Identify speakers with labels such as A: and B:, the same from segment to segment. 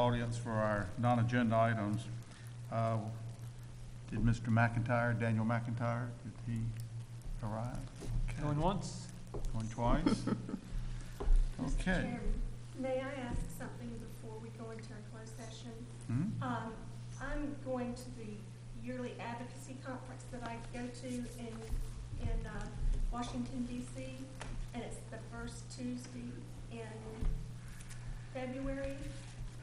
A: audience for our non-agenda items. Uh, Did Mr. McIntyre, Daniel McIntyre, did he arrive? Okay.
B: Going once?
A: Going twice? Okay.
C: Chairman, May I ask something before we go into our closed session?
A: Hmm?
C: Um, I'm going to the yearly advocacy conference that I go to in, in, uh, Washington DC, and it's the first Tuesday in February.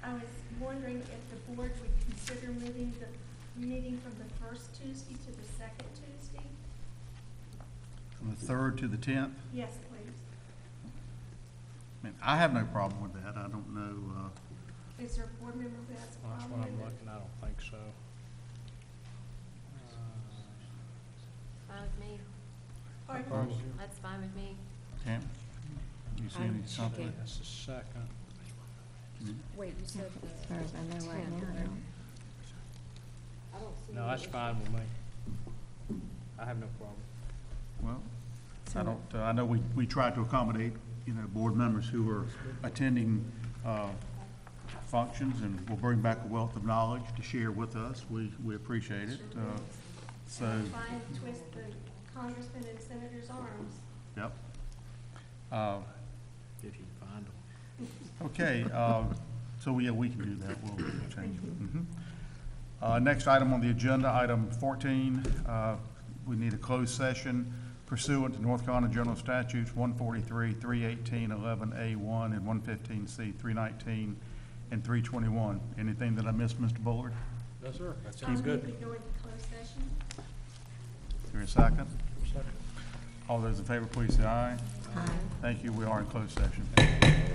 C: I was wondering if the board would consider moving the meeting from the first Tuesday to the second Tuesday?
A: From the third to the tenth?
C: Yes, please.
A: I mean, I have no problem with that. I don't know, uh,
C: Is there a board member who has a
D: That's
C: problem
D: what
C: with it?
D: I'm looking, I don't think so. Uh,
E: Fine with me.
C: Pardon?
D: Proposal.
E: That's fine with me.
A: Tam? You see any
F: I'm
A: something?
F: checking.
D: That's the second.
F: Wait, you said the
E: As far as I know right now, I don't- I don't see
D: No,
E: any
D: that's
E: issue.
D: fine with me. I have no problem.
A: Well, I don't, uh, I know we, we try to accommodate, you know, board members who are attending, uh, functions and will bring back a wealth of knowledge to share with us. We, we appreciate it. Uh, so,
C: Try and twist the congressman and senator's arms.
A: yep. Uh,
D: If you can find them.
A: Okay, uh, so, yeah, we can do that, we'll change it. Mhm. Uh, Next item on the agenda, item 14, uh, we need a closed session pursuant to North Carolina General Statutes 143, 318, 11A1, and 115C, 319, and 321. Anything that I missed, Mr. Bullard?
D: Yes, sir. That
C: Um, we go into closed session.
A: Is there a second? All those in favor, please say aye. Thank you, we are in closed session.